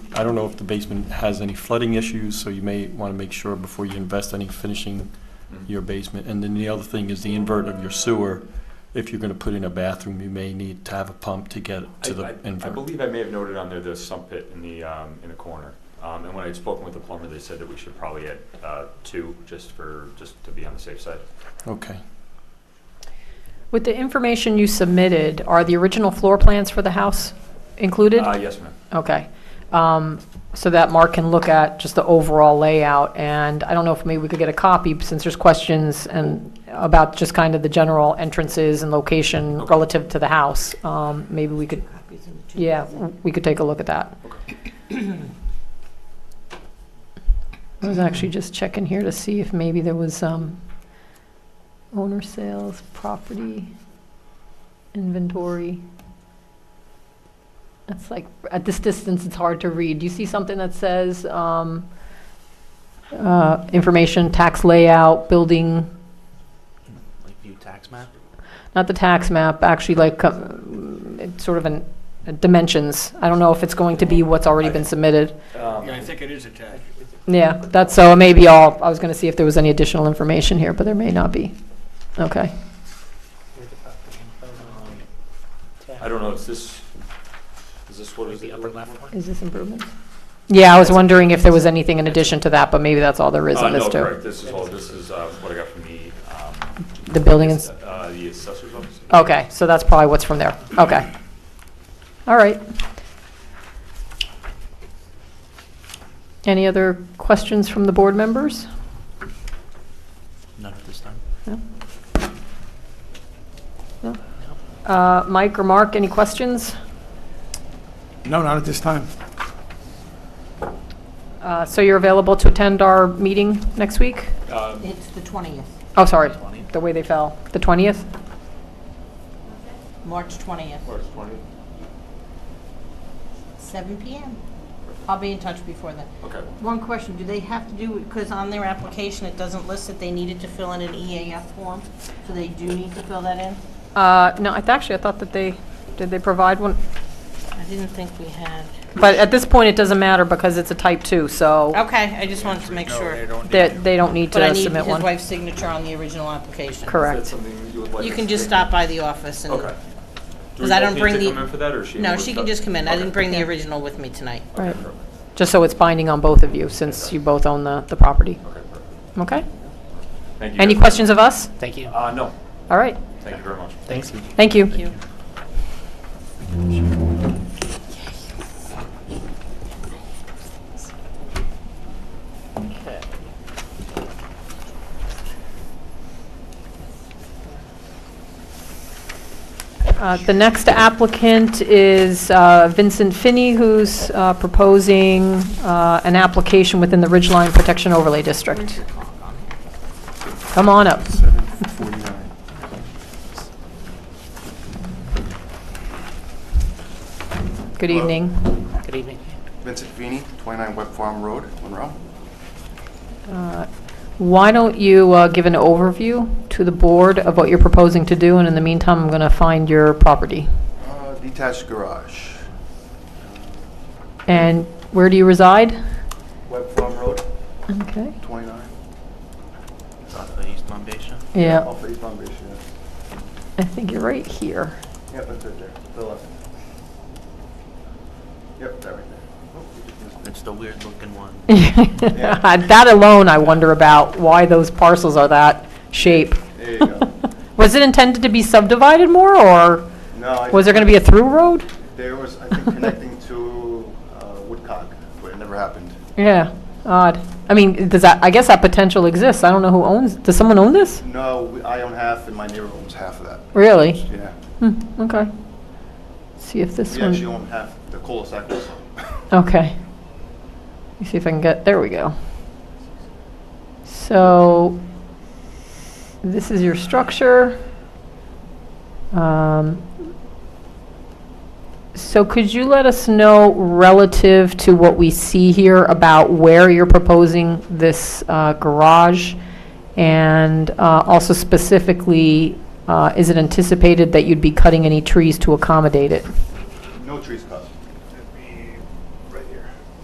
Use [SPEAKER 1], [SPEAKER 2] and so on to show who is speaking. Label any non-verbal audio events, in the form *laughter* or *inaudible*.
[SPEAKER 1] I don't know if the basement has any flooding issues, so you may want to make sure before you invest any finishing your basement. And then the other thing is the invert of your sewer. If you're going to put in a bathroom, you may need to have a pump to get
[SPEAKER 2] I,
[SPEAKER 1] to
[SPEAKER 2] I-
[SPEAKER 1] the
[SPEAKER 2] I
[SPEAKER 1] invert.
[SPEAKER 2] believe I may have noted on there the sump pit in the, um, in the corner. Um, and when I had spoken with the plumber, they said that we should probably add, uh, two, just for, just to be on the safe side.
[SPEAKER 1] Okay.
[SPEAKER 3] With the information you submitted, are the original floor plans for the house included?
[SPEAKER 2] Uh, yes, ma'am.
[SPEAKER 3] Okay. Um, So that Mark can look at just the overall layout, and I don't know if maybe we could get a copy, since there's questions and about just kind of the general entrances and location
[SPEAKER 2] Okay.
[SPEAKER 3] relative to the house. Um, Maybe we could,
[SPEAKER 4] copies in the two
[SPEAKER 3] yeah,
[SPEAKER 4] thousand.
[SPEAKER 3] we could take a look at that. I was actually just checking here to see if maybe there was um, owner sales, property, inventory. It's like, at this distance, it's hard to read. Do you see something that says um, uh, information, tax layout, building,
[SPEAKER 5] Like view tax map?
[SPEAKER 3] not the tax map, actually like uh, it's sort of an, uh, dimensions? I don't know if it's going to be what's already been submitted.
[SPEAKER 2] Um,
[SPEAKER 6] Yeah, I think it is attached.
[SPEAKER 3] Yeah, that's, so maybe all, I was going to see if there was any additional information here, but there may not be. Okay.
[SPEAKER 2] I don't know, is this, is this what
[SPEAKER 5] Like
[SPEAKER 2] is
[SPEAKER 5] the
[SPEAKER 2] it?
[SPEAKER 5] upper left one?
[SPEAKER 3] Is this improvement? Yeah, I was wondering if there was anything in addition to that, but maybe that's all there is
[SPEAKER 2] Uh,
[SPEAKER 3] on this
[SPEAKER 2] No,
[SPEAKER 3] too.
[SPEAKER 2] correct, this is all, this is, uh, what I got from the, um.
[SPEAKER 3] The building Oh. is,
[SPEAKER 2] Uh, the assessor's office.
[SPEAKER 3] okay, so that's probably what's from there. Okay. All right. Any other questions from the board members?
[SPEAKER 5] None at this time.
[SPEAKER 3] Uh, Mike or Mark, any questions?
[SPEAKER 6] No, not at this time.
[SPEAKER 3] Uh, So you're available to attend our meeting next week?
[SPEAKER 2] Um,
[SPEAKER 4] It's the twentieth,
[SPEAKER 3] Oh, sorry,
[SPEAKER 5] 20.
[SPEAKER 3] the way they fell, the 20th?
[SPEAKER 4] March twentieth,
[SPEAKER 2] March 20th?
[SPEAKER 4] seven PM. I'll be in touch before then.
[SPEAKER 2] Okay.
[SPEAKER 4] One question, do they have to do, because on their application, it doesn't list that they needed to fill in an EAF form, so they do need to fill that in?
[SPEAKER 3] Uh, No, I th- actually, I thought that they, did they provide one?
[SPEAKER 4] I didn't think we had.
[SPEAKER 3] But at this point, it doesn't matter because it's a type 2, so
[SPEAKER 4] Okay, I just wanted to make
[SPEAKER 6] No, they
[SPEAKER 4] sure.
[SPEAKER 6] don't need
[SPEAKER 3] that
[SPEAKER 6] to.
[SPEAKER 3] they don't need
[SPEAKER 4] But I
[SPEAKER 3] to
[SPEAKER 4] need
[SPEAKER 3] submit
[SPEAKER 4] his
[SPEAKER 3] one.
[SPEAKER 4] wife's signature on the original application.
[SPEAKER 2] Is that
[SPEAKER 3] Correct.
[SPEAKER 2] something that you would like?
[SPEAKER 4] You
[SPEAKER 2] us
[SPEAKER 4] can
[SPEAKER 2] to
[SPEAKER 4] just
[SPEAKER 2] do?
[SPEAKER 4] stop by the office and.
[SPEAKER 2] Okay. Do
[SPEAKER 4] 'Cause
[SPEAKER 2] we
[SPEAKER 4] I
[SPEAKER 2] both
[SPEAKER 4] don't
[SPEAKER 2] need
[SPEAKER 4] bring
[SPEAKER 2] to
[SPEAKER 4] the-
[SPEAKER 2] come in for that, or is she?
[SPEAKER 4] No,
[SPEAKER 2] able
[SPEAKER 4] she
[SPEAKER 2] stop?
[SPEAKER 4] can just come in. I
[SPEAKER 2] Okay.
[SPEAKER 4] didn't bring the original with me tonight.
[SPEAKER 2] Okay,
[SPEAKER 3] Right.
[SPEAKER 2] perfect.
[SPEAKER 3] Just so it's binding on both of you, since you both own the, the property.
[SPEAKER 2] Okay, perfect.
[SPEAKER 3] Okay?
[SPEAKER 2] Thank you.
[SPEAKER 3] Any
[SPEAKER 2] guys.
[SPEAKER 3] questions of us?
[SPEAKER 5] Thank you.
[SPEAKER 2] Uh, no,
[SPEAKER 3] All right.
[SPEAKER 2] thank you very much.
[SPEAKER 5] Thanks.
[SPEAKER 3] Thank you.
[SPEAKER 4] you.
[SPEAKER 3] Uh, The next applicant is uh, Vincent Finney, who's uh, proposing uh, an application within the Ridgeline Protection Overlay District. Come on up.
[SPEAKER 1] Seven forty-nine.
[SPEAKER 3] Good
[SPEAKER 7] Hello.
[SPEAKER 3] evening.
[SPEAKER 5] Good evening.
[SPEAKER 7] Vincent Feeney, 29 Web Farm Road, Monroe.
[SPEAKER 3] Uh, Why don't you uh, give an overview to the board of what you're proposing to do, and in the meantime, I'm going to find your property.
[SPEAKER 7] Uh, Detached garage,
[SPEAKER 3] And where do you reside?
[SPEAKER 7] Web Farm Road,
[SPEAKER 3] Okay.
[SPEAKER 7] 29.
[SPEAKER 5] Off of East Lumbation.
[SPEAKER 3] Yeah,
[SPEAKER 7] Off East Palm Beach, yeah.
[SPEAKER 3] I think you're right here.
[SPEAKER 7] Yep, that's it there, to the left. Yep, that right there.
[SPEAKER 5] It's the weird looking one.
[SPEAKER 3] *laughs* That alone, I wonder about why those parcels are that shape.
[SPEAKER 7] There
[SPEAKER 3] *laughs*
[SPEAKER 7] you go.
[SPEAKER 3] Was it intended to be subdivided more, or
[SPEAKER 7] No, I-
[SPEAKER 3] was there going to be a through road?
[SPEAKER 7] There was, I think, connecting to uh, Woodcock, but it never happened.
[SPEAKER 3] Yeah, odd. I mean, does that, I guess that potential exists. I don't know who owns, does someone own this?
[SPEAKER 7] No, we- I own half and my neighbor owns half of that.
[SPEAKER 3] Really?
[SPEAKER 7] Yeah.
[SPEAKER 3] Hmm, okay. See if this
[SPEAKER 7] We
[SPEAKER 3] one.
[SPEAKER 7] actually own half the cul-de-sac also.
[SPEAKER 3] Okay. Let me see if I can get, there we go. So, this is your structure. Um, So could you let us know relative to what we see here about where you're proposing this uh, garage? And uh, also specifically, uh, is it anticipated that you'd be cutting any trees to accommodate it?
[SPEAKER 7] No trees